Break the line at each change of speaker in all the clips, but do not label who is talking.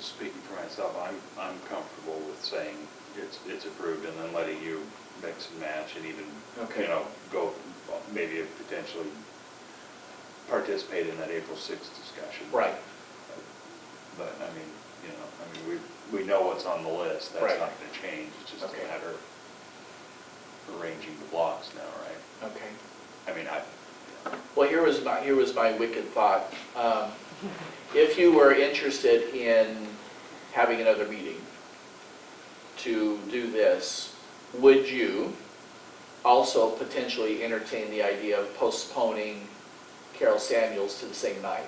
speaking for myself, I'm, I'm comfortable with saying it's, it's approved and then letting you mix and match and even,
Okay.
you know, go, maybe potentially participate in that April sixth discussion.
Right.
But, I mean, you know, I mean, we, we know what's on the list, that's
Right.
not gonna change, it's just a
Okay.
matter of arranging the blocks now, right?
Okay.
I mean, I,
Well, here was my, here was my wicked thought. Um, If you were interested in having another meeting to do this, would you also potentially entertain the idea of postponing Carol Samuels to the same night?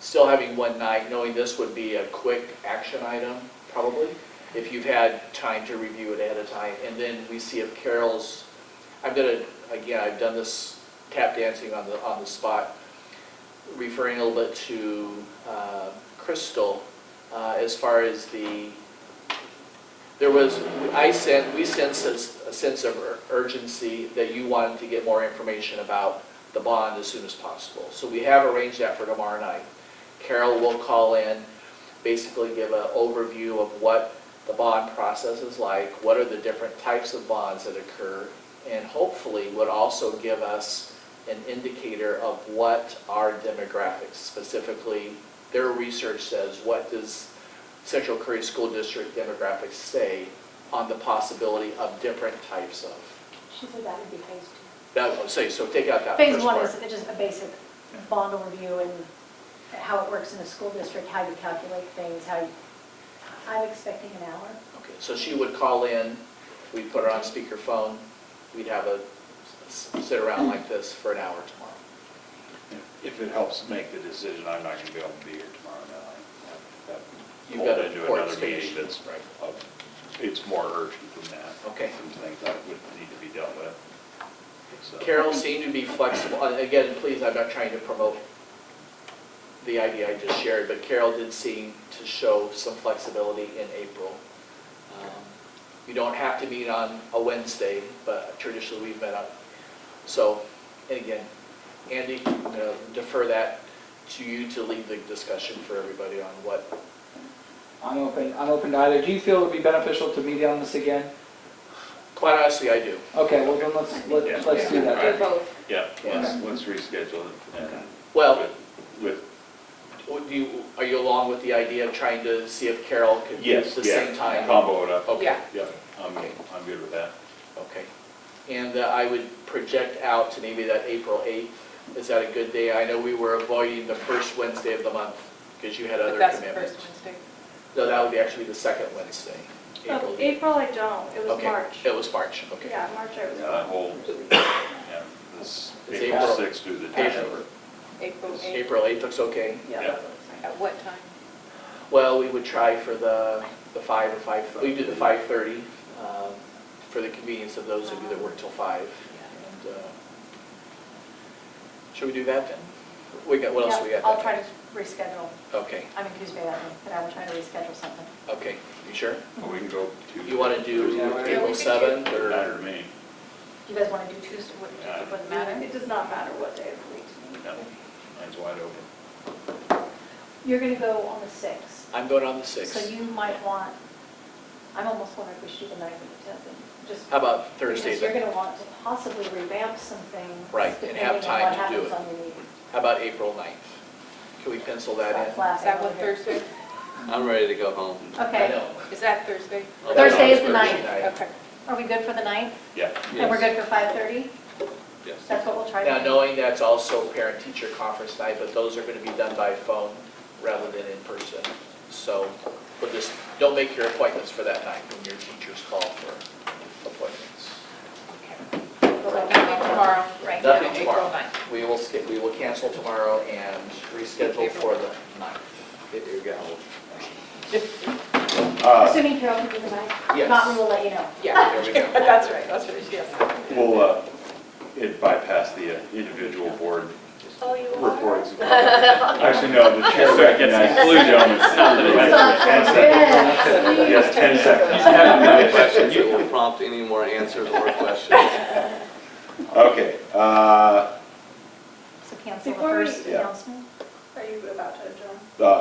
Still having one night, knowing this would be a quick action item, probably, if you've had time to review it ahead of time, and then we see if Carol's I'm gonna, again, I've done this tap dancing on the, on the spot, referring a little bit to uh, Crystal, uh, as far as the, there was, I sent, we sense a s- a sense of ur- urgency that you wanted to get more information about the bond as soon as possible. So we have arranged that for tomorrow night. Carol will call in, basically give an overview of what the bond process is like, what are the different types of bonds that occur, and hopefully would also give us an indicator of what our demographics, specifically, their research says, what does Central Curry School District demographics say on the possibility of different types of,
She said that would be phase two.
that, would say, so take out that
Phase
first
one
part.
is just a basic bond overview and how it works in a school district, how you calculate things, how you, I'm expecting an hour.
Okay, so she would call in, we'd put her on speakerphone, we'd have a, sit around like this for an hour tomorrow.
if it helps make the decision, I'm not gonna be able to be here tomorrow night. That- that
You've got
pulled
a
into
court
another meeting
station.
that's,
Right.
of- it's more urgent than that.
Okay.
Some things that would need to be dealt with. So-
Carol seemed to be flexible, and again, please, I'm not trying to promote the idea I just shared, but Carol did seem to show some flexibility in April. Um, You don't have to meet on a Wednesday, but traditionally we've met on, so, and again, Andy, I'm gonna defer that to you to lead the discussion for everybody on what
I'm open, I'm open to either. Do you feel it would be beneficial to meet on this again?
Quite honestly, I do.
Okay, well then let's,
Yeah.
let- let's do that.
Yeah.
both.
Yeah, let's,
Yeah.
let's reschedule it. and-
Well-
With,
Would you, are you along with the idea of trying to see if Carol could
with-
do
yes,
the same
yeah,
time?
combo it up.
Okay.
Yeah.
Yeah, I'm,
Okay.
I'm good with that.
Okay. And uh, I would project out to maybe that April 8th. Is that a good day? I know we were avoiding the first Wednesday of the month because you had other
But that's the first
commitments.
Wednesday.
No, that would be actually the second Wednesday.
Oh,
the-
April I don't, it was
Okay.
March.
It was March, okay.
Yeah, March I was.
Yeah, that whole, yeah, this
It's
April
April.
6th through the
April.
10th.
April 8th.
April 8th looks okay.
Yeah.
At what time?
Well, we would try for the, the five or five, we do the five thirty, um, for the convenience of those of you that work till five. And, uh, should we do that then? We got, what else we got?
Yeah, I'll
then?
try to reschedule.
Okay,
I'm in Coos Bay that week, but I will try to reschedule something.
okay, you sure?
Well, We can go to.
You wanna do
Yeah, we
April
could do-
seventh
Doesn't matter
or?
to me.
Do you guys want to do Tuesday? What-
Yeah.
what-
Doesn't matter.
It does not matter what day of the week to me.
No, mine's wide open.
You're going to go on the 6th.
I'm going on the
So
sixth.
you might want, I'm almost wondering if we should do the 9th or the 10th and just
How about Thursday
Because you're
then?
going to want to possibly revamp some things.
Right, and have
depending on
time to do
what happens
it.
on your meeting.
How about April ninth? Can we pencil that
That's
in?
last
Is that
one
what
here.
Thursday?
I'm ready to go home.
I
Okay,
know.
Is that Thursday?
I'll go
Thursday
on
is the
Thursday
ninth.
night.
Okay.
are we good for the ninth?
Yeah.
And we're
Yes.
good for 5:30?
Yes.
That's what we'll try
Now,
to do.
knowing that's also parent-teacher conference night, but those are going to be done by phone rather than in person. So we'll just, don't make your appointments for that night when your teachers call for appointments.
We'll let you
Nothing
know.
tomorrow.
Right.
now,
Nothing tomorrow.
April 9th.
We will skip, we will cancel tomorrow and reschedule for the ninth.
Hit your gavel.
Uh,
Assuming Carol can do the ninth?
Yes.
Not, we will let you know.
Yeah,
There we go.
that's right, that's right, yes.
We'll, uh, it bypassed the uh, individual board
Oh, you
reports. Actually, no, the chair recognizes the gentleman. Ten seconds. Yes,
Yes.
10 seconds.
Any questions that will prompt any more answers or questions?
Okay, uh,
So cancel the
Before we-
first
Yeah.
announcement?
Are you about to adjourn?
uh,